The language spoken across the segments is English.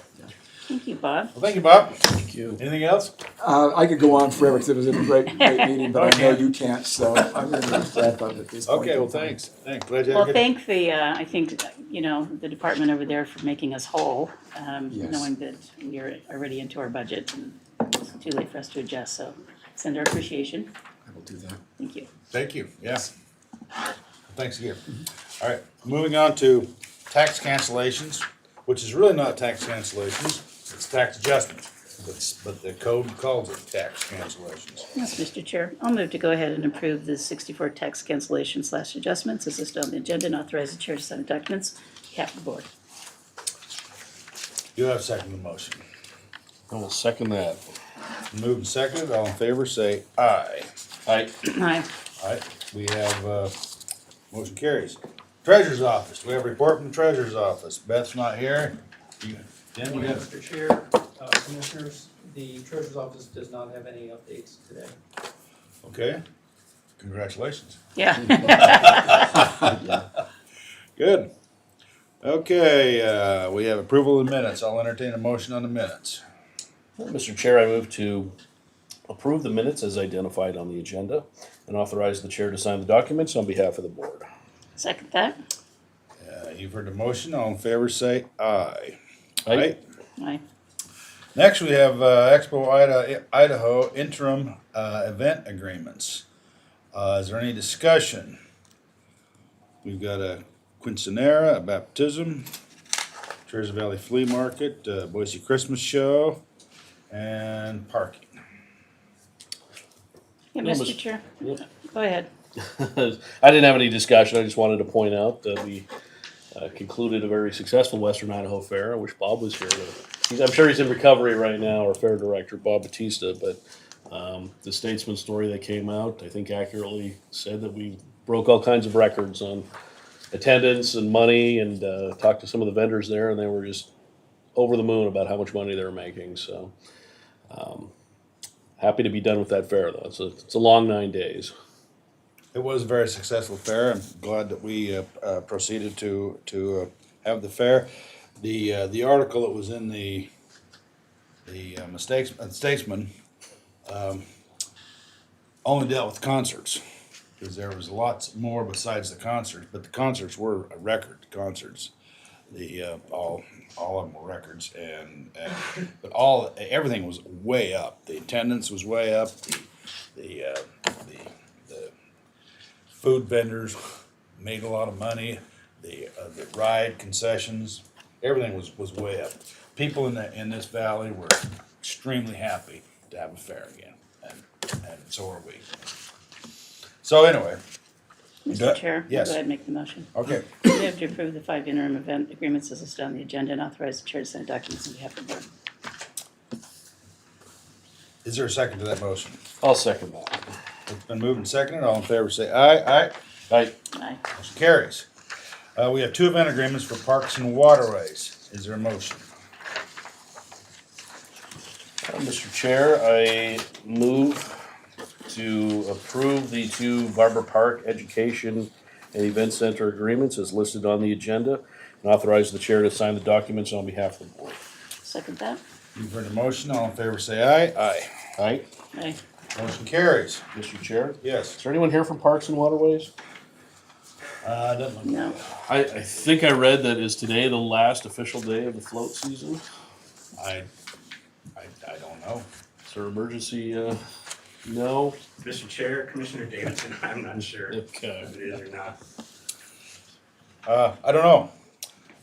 Thank you, Bob. Well, thank you, Bob. Thank you. Anything else? Uh, I could go on forever because it was a great, great meeting, but I know Okay. you can't, so I'm going to wrap up at this point. Okay, well, thanks. Thanks. Glad you had a Well, good. thank the, uh, I think, you know, the department over there for making us whole, um, Yes. knowing that we're already into our budget. and It's too late for us to adjust, so send our appreciation. I will do that. Thank you. Thank you, yes. Thanks again. All right, moving on to tax cancellations, which is really not tax cancellations, it's tax adjustments. But, but the code calls it tax cancellations. Yes, Mr. Chair, I'll move to go ahead and approve the sixty-four tax cancellation slash adjustments as listed on the agenda and authorize the chair to sign the documents. Cap the board. You have second the motion. I will second that. Moved and seconded, all in favor, say aye. Aye. Aye. All right, we have, uh, motion carries. Treasurer's office, we have a report from the treasurer's office. Beth's not here. You- Jim, you Morning, got- Mr. Chair, uh, Commissioners, the Treasurer's Office does not have any updates today. okay, congratulations. Yeah. Good. Okay, uh, we have approval of the minutes. I'll entertain a motion on the minutes. Mr. Chair, I move to approve the minutes as identified on the agenda and authorize the chair to sign the documents on behalf of the board. Second that. Uh, you've heard the motion. All in favor, say aye. Right? Aye. Next, we have, uh, Expo Ida- Idaho interim, uh, event agreements. Uh, is there any discussion? We've got a quinceanera, a baptism, Treasure Valley Flea Market, uh, Boise Christmas Show, and parking. Yeah, No, Mr. Mr. Chair, Yep. go ahead. I didn't have any discussion. I just wanted to point out that we uh, concluded a very successful Western Idaho Fair. I wish Bob was here. He's, I'm sure he's in recovery right now, our fair director, Bob Batista. But um, the Statesman story that came out, I think, accurately said that we broke all kinds of records on attendance and money and uh, talked to some of the vendors there, and they were just over the moon about how much money they were making. So um, happy to be done with that fair, though. It's a, it's a long nine days. It was a very successful fair. I'm glad that we uh, uh, proceeded to to uh, have the fair. The uh, the article that was in the the uh, mistakes uh, statesman um, only dealt with concerts because there was lots more besides the concerts. But the concerts were a record concerts. The uh, all all of them were records, and, and but all everything was way up. The attendance was way up. The the uh, the, the food vendors made a lot of money. The uh, the ride concessions, everything was was way up. People in the in this valley were extremely happy to have a fair again, and and so are we. So anyway, Yeah, Mr. Chair, go yes. ahead and make the motion. okay, We have to approve the five interim event agreements as listed on the agenda and authorize the chair to sign documents on behalf of the board. is there a second to that motion? I'll second that. It's been moved and seconded. All in favor, say aye. Aye. Aye. Aye. Motion carries. Uh, we have two event agreements for parks and waterways. Is there a motion? Mr. Chair, I move to approve the two Barber Park Education and Event Center agreements as listed on the agenda and authorize the chair to sign the documents on behalf of the board. Second that. You've heard the motion. All in favor, say aye. Aye. Aye. Aye. Motion carries. Mr. Chair, Yes. is there anyone here from Parks and Waterways? Uh, doesn't look No. I, I think I read that is today the last official day of the float season. I, I, I don't know. Is there emergency, uh, no? Mr. Chair, Commissioner Davidson, I'm not sure if Okay. it is or not. Uh, I don't know.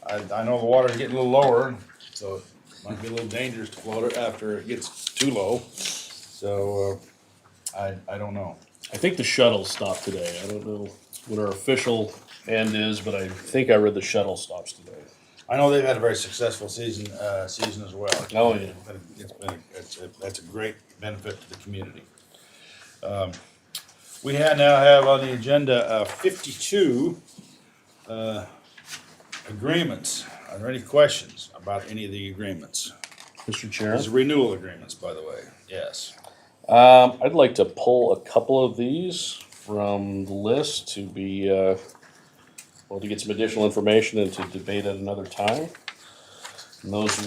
I, I know the water's getting a little lower, so it might be a little dangerous to float it after it gets too low. So, uh, I, I don't know. I think the shuttle stopped today. I don't know what our official end is, but I think I read the shuttle stops today. I know they've had a very successful season, uh, season as well. Oh, yeah. But It's been, it's, a- that's a great benefit to the community. Um, we ha now have on the agenda, uh, fifty-two, uh, agreements. Are there any questions about any of the agreements? Mr. Chair, These are renewal agreements, by the way. Yes. um, I'd like to pull a couple of these from the list to be, uh, well, to get some additional information and to debate at another time. And those